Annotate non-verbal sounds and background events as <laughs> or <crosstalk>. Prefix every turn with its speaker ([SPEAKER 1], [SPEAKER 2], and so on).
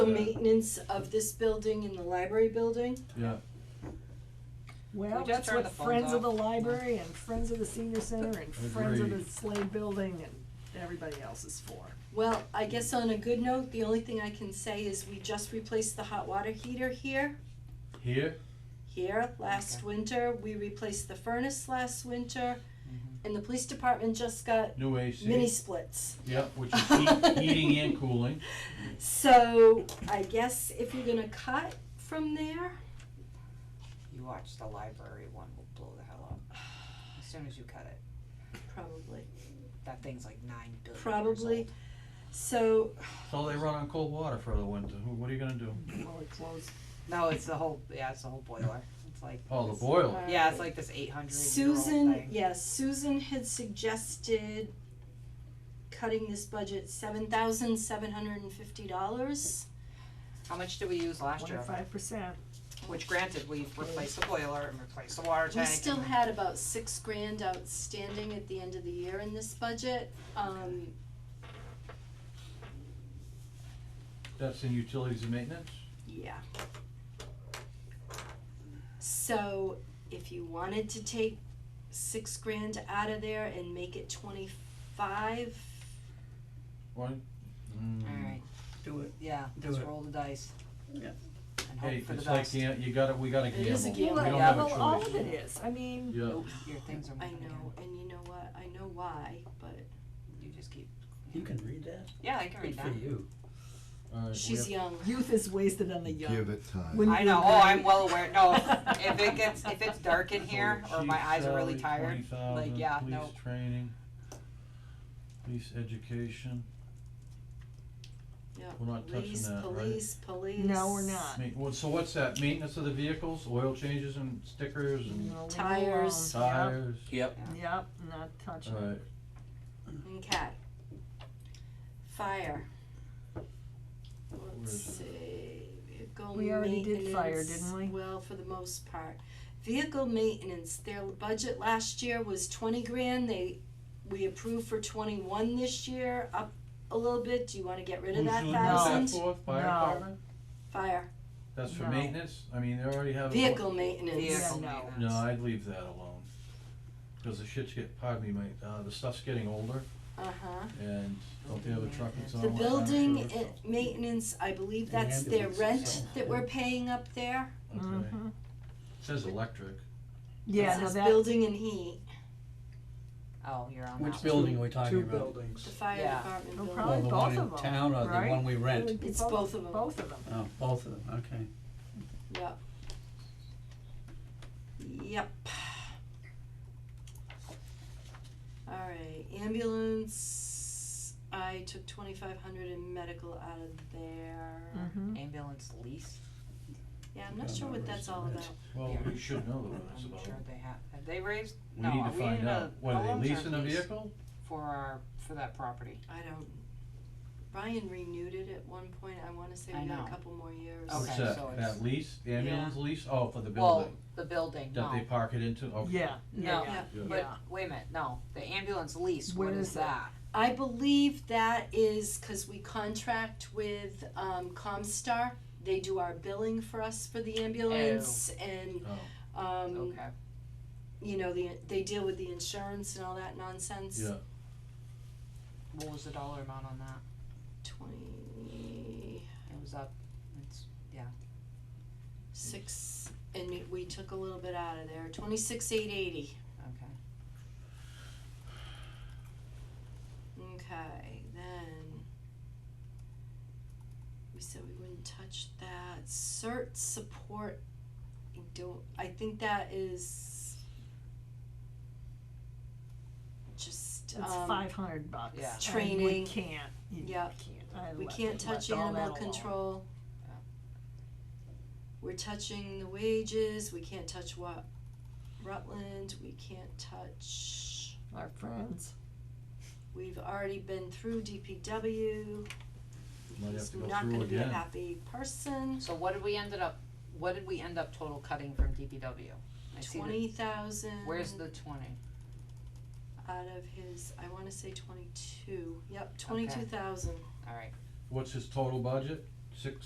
[SPEAKER 1] maintenance of this building and the library building.
[SPEAKER 2] Yeah,
[SPEAKER 3] Well,
[SPEAKER 4] We just
[SPEAKER 3] that's
[SPEAKER 4] turn
[SPEAKER 3] what
[SPEAKER 4] the phones
[SPEAKER 3] Friends of the
[SPEAKER 4] off.
[SPEAKER 3] Library and Friends of the Senior Center and Friends of the
[SPEAKER 2] Agreed.
[SPEAKER 3] Slade Building and everybody else is for.
[SPEAKER 1] Well, I guess on a good note, the only thing I can say is we just replaced the hot water heater here.
[SPEAKER 2] here,
[SPEAKER 1] Here, last winter, we replaced the furnace last winter, and the police department just got
[SPEAKER 2] new AC.
[SPEAKER 1] mini splits.
[SPEAKER 2] Yep,
[SPEAKER 1] <laughs>
[SPEAKER 2] which is heat, heating and cooling.
[SPEAKER 1] So I guess if you're gonna cut from there,
[SPEAKER 4] You watch the library one will blow the hell up. As soon as you cut it,
[SPEAKER 1] probably,
[SPEAKER 4] that thing's like nine billion years
[SPEAKER 1] probably.
[SPEAKER 4] old.
[SPEAKER 1] So,
[SPEAKER 2] So they run on cold water for the winter. Wh- What are you gonna do?
[SPEAKER 3] Well, it closed.
[SPEAKER 4] No, it's the whole, yeah, it's the whole boiler. It's like.
[SPEAKER 2] Oh, the
[SPEAKER 4] this-
[SPEAKER 2] boiler.
[SPEAKER 4] Yeah, it's like this eight hundred year old
[SPEAKER 1] Susan,
[SPEAKER 4] thing.
[SPEAKER 1] yes, Susan had suggested cutting this budget seven thousand seven hundred and fifty dollars.
[SPEAKER 4] How much did we use last year?
[SPEAKER 3] Twenty-five percent.
[SPEAKER 4] Which granted, we replaced the boiler and replaced the water
[SPEAKER 1] We
[SPEAKER 4] tank.
[SPEAKER 1] still
[SPEAKER 4] and-
[SPEAKER 1] had about six grand outstanding at the end of the year in this budget, um,
[SPEAKER 2] That's in utilities and maintenance?
[SPEAKER 1] Yeah. So if you wanted to take six grand out of there and make it twenty-five,
[SPEAKER 2] Right? Mm.
[SPEAKER 4] Alright,
[SPEAKER 5] Do it.
[SPEAKER 4] yeah,
[SPEAKER 5] Do
[SPEAKER 4] just
[SPEAKER 5] it.
[SPEAKER 4] roll the dice.
[SPEAKER 5] Yeah.
[SPEAKER 4] And
[SPEAKER 2] Hey,
[SPEAKER 4] hope for the
[SPEAKER 2] it's like,
[SPEAKER 4] best.
[SPEAKER 2] gam- you gotta, we gotta
[SPEAKER 1] It
[SPEAKER 2] gamble.
[SPEAKER 1] is a gamble.
[SPEAKER 2] We
[SPEAKER 3] Well,
[SPEAKER 2] don't
[SPEAKER 4] Yeah.
[SPEAKER 2] have
[SPEAKER 3] well, all
[SPEAKER 2] a
[SPEAKER 3] of
[SPEAKER 2] choice.
[SPEAKER 3] it is. I mean,
[SPEAKER 2] Yeah,
[SPEAKER 4] Nope, your things are
[SPEAKER 1] I
[SPEAKER 4] moving again.
[SPEAKER 1] know, and you know what, I know why, but
[SPEAKER 4] You just keep,
[SPEAKER 5] You can read that?
[SPEAKER 4] yeah, I can read
[SPEAKER 5] Good
[SPEAKER 4] that.
[SPEAKER 5] for you.
[SPEAKER 2] alright, we
[SPEAKER 1] she's
[SPEAKER 2] have,
[SPEAKER 1] young.
[SPEAKER 3] youth is wasted on the
[SPEAKER 6] Give
[SPEAKER 3] young.
[SPEAKER 6] it time.
[SPEAKER 3] Wouldn't
[SPEAKER 4] I
[SPEAKER 3] you
[SPEAKER 4] know, oh, I'm
[SPEAKER 3] agree?
[SPEAKER 4] well aware,
[SPEAKER 3] <laughs>
[SPEAKER 4] no, if- if it gets, <laughs> if it's dark in here,
[SPEAKER 2] so
[SPEAKER 4] or my
[SPEAKER 2] chief
[SPEAKER 4] eyes are really
[SPEAKER 2] salary,
[SPEAKER 4] tired, like,
[SPEAKER 2] 20,000,
[SPEAKER 4] yeah, no,
[SPEAKER 2] Police training, police education.
[SPEAKER 1] Yeah,
[SPEAKER 2] We're not touching
[SPEAKER 1] police,
[SPEAKER 2] that, right?
[SPEAKER 1] police, police.
[SPEAKER 3] No, we're not.
[SPEAKER 2] Ma- well, so what's that, maintenance of the vehicles, oil changes and stickers and
[SPEAKER 3] No, leave it
[SPEAKER 1] Tires.
[SPEAKER 3] alone. Yep,
[SPEAKER 2] tires?
[SPEAKER 5] Yep.
[SPEAKER 3] Yep, not touching it.
[SPEAKER 2] Alright,
[SPEAKER 1] Okay. Fire. Let's
[SPEAKER 2] is it?
[SPEAKER 1] see, vehicle
[SPEAKER 3] We already did fire,
[SPEAKER 1] maintenance,
[SPEAKER 3] didn't we?
[SPEAKER 1] Well, for the most part. Vehicle maintenance, their budget last year was twenty grand, they, we approved for twenty-one this year, up a little bit, do you wanna get rid of
[SPEAKER 2] Who's
[SPEAKER 1] that
[SPEAKER 2] doing
[SPEAKER 1] thousand?
[SPEAKER 2] that for, fire
[SPEAKER 3] No.
[SPEAKER 2] department?
[SPEAKER 1] Fire,
[SPEAKER 2] That's for
[SPEAKER 3] No.
[SPEAKER 2] maintenance, I mean, they already have. a-
[SPEAKER 1] vehicle maintenance.
[SPEAKER 4] vehicle
[SPEAKER 3] Yeah, no.
[SPEAKER 4] maintenance.
[SPEAKER 2] No, I'd leave that alone, cause the shit's get, pardon me, mate, uh, the stuff's getting older
[SPEAKER 1] Uh-huh,
[SPEAKER 2] and don't they have a truck that's on?
[SPEAKER 1] the
[SPEAKER 2] all the time
[SPEAKER 1] building
[SPEAKER 2] service?
[SPEAKER 1] i- maintenance, I believe
[SPEAKER 5] And
[SPEAKER 1] that's their
[SPEAKER 5] ambulances,
[SPEAKER 1] rent
[SPEAKER 5] so-
[SPEAKER 1] that we're paying up there,
[SPEAKER 2] Okay,
[SPEAKER 1] Mm-hmm.
[SPEAKER 3] Mhm.
[SPEAKER 2] says electric,
[SPEAKER 3] Yeah,
[SPEAKER 1] This
[SPEAKER 3] no,
[SPEAKER 1] is
[SPEAKER 3] that,
[SPEAKER 1] building and heat,
[SPEAKER 4] Oh, you're on that.
[SPEAKER 5] Which building are we talking
[SPEAKER 7] Two
[SPEAKER 5] about?
[SPEAKER 1] the
[SPEAKER 7] buildings.
[SPEAKER 1] fire
[SPEAKER 4] Yeah.
[SPEAKER 1] department
[SPEAKER 3] No
[SPEAKER 1] building.
[SPEAKER 3] problem. Probably
[SPEAKER 5] Well, the
[SPEAKER 3] both
[SPEAKER 5] one
[SPEAKER 3] of
[SPEAKER 5] in
[SPEAKER 3] 'em,
[SPEAKER 5] town or the
[SPEAKER 3] right?
[SPEAKER 5] one we
[SPEAKER 3] it
[SPEAKER 5] rent?
[SPEAKER 3] would be
[SPEAKER 1] It's both of 'em.
[SPEAKER 3] Both of them.
[SPEAKER 5] Oh, both of them, okay.
[SPEAKER 1] Yep. Yep. Alright, ambulance, I took twenty-five hundred in medical out of there.
[SPEAKER 3] Mhm.
[SPEAKER 4] Ambulance lease,
[SPEAKER 1] Yeah, I'm not sure what that's all about.
[SPEAKER 2] well,
[SPEAKER 4] Yeah.
[SPEAKER 2] we should know what Oh, that's
[SPEAKER 4] I'm
[SPEAKER 2] about.
[SPEAKER 4] sure they have, have they raised,
[SPEAKER 2] We
[SPEAKER 4] no,
[SPEAKER 2] need to
[SPEAKER 4] we
[SPEAKER 2] find
[SPEAKER 4] need a-
[SPEAKER 2] out, what,
[SPEAKER 4] a
[SPEAKER 2] are
[SPEAKER 4] long-term
[SPEAKER 2] they leasing a
[SPEAKER 4] lease
[SPEAKER 2] vehicle?
[SPEAKER 4] For our, for that property,
[SPEAKER 1] I don't, Ryan renewed it at one point, I wanna say
[SPEAKER 4] I
[SPEAKER 1] we got
[SPEAKER 4] know.
[SPEAKER 1] a couple more years.
[SPEAKER 4] Okay,
[SPEAKER 2] What's
[SPEAKER 4] so
[SPEAKER 2] that,
[SPEAKER 4] it's-
[SPEAKER 2] that lease, the ambulance lease, oh, for the
[SPEAKER 4] well,
[SPEAKER 2] building,
[SPEAKER 4] the building, no.
[SPEAKER 2] that they park it into, okay.
[SPEAKER 3] Yeah, yeah,
[SPEAKER 4] No.
[SPEAKER 3] yeah.
[SPEAKER 2] Yeah.
[SPEAKER 4] But,
[SPEAKER 3] Yeah.
[SPEAKER 4] wait a minute, no, the ambulance lease, what
[SPEAKER 3] Where
[SPEAKER 4] is
[SPEAKER 3] is it?
[SPEAKER 4] that?
[SPEAKER 1] I believe that is cause we contract with, um, Comstar, they do our billing for us for the ambulance and,
[SPEAKER 2] Oh.
[SPEAKER 1] um,
[SPEAKER 4] Okay,
[SPEAKER 1] you know, the, they deal with the insurance and all that nonsense.
[SPEAKER 2] Yeah.
[SPEAKER 4] what was the dollar amount on that?
[SPEAKER 1] Twenty-six,
[SPEAKER 4] It was up, it's,
[SPEAKER 1] and we- we took a little bit out of there, twenty-six, eight eighty,
[SPEAKER 4] okay,
[SPEAKER 1] okay, then. We said we wouldn't touch that, cert support, I don't, I think that is. Just,
[SPEAKER 3] It's
[SPEAKER 1] um,
[SPEAKER 3] five hundred bucks.
[SPEAKER 4] Yeah.
[SPEAKER 3] I mean,
[SPEAKER 1] Training.
[SPEAKER 3] We can't, you
[SPEAKER 1] Yep.
[SPEAKER 3] can't, I
[SPEAKER 1] we
[SPEAKER 3] left-
[SPEAKER 1] can't touch
[SPEAKER 3] left all that
[SPEAKER 1] animal
[SPEAKER 3] alone.
[SPEAKER 1] control.
[SPEAKER 4] Yeah.
[SPEAKER 1] We're touching the wages, we can't touch what, Rutland, we can't touch.
[SPEAKER 3] Our friends.
[SPEAKER 1] We've already been through DPW.
[SPEAKER 2] Might have
[SPEAKER 1] He's
[SPEAKER 2] to go
[SPEAKER 1] not
[SPEAKER 2] through
[SPEAKER 1] gonna be a
[SPEAKER 2] again.
[SPEAKER 1] happy person.
[SPEAKER 4] so what did we ended up, what did we end up total cutting from DPW? I see the-
[SPEAKER 1] Twenty thousand.
[SPEAKER 4] Where's the twenty?
[SPEAKER 1] Out of his, I wanna say twenty-two, yep, twenty-two thousand.
[SPEAKER 4] Alright.
[SPEAKER 2] What's his total budget? Six,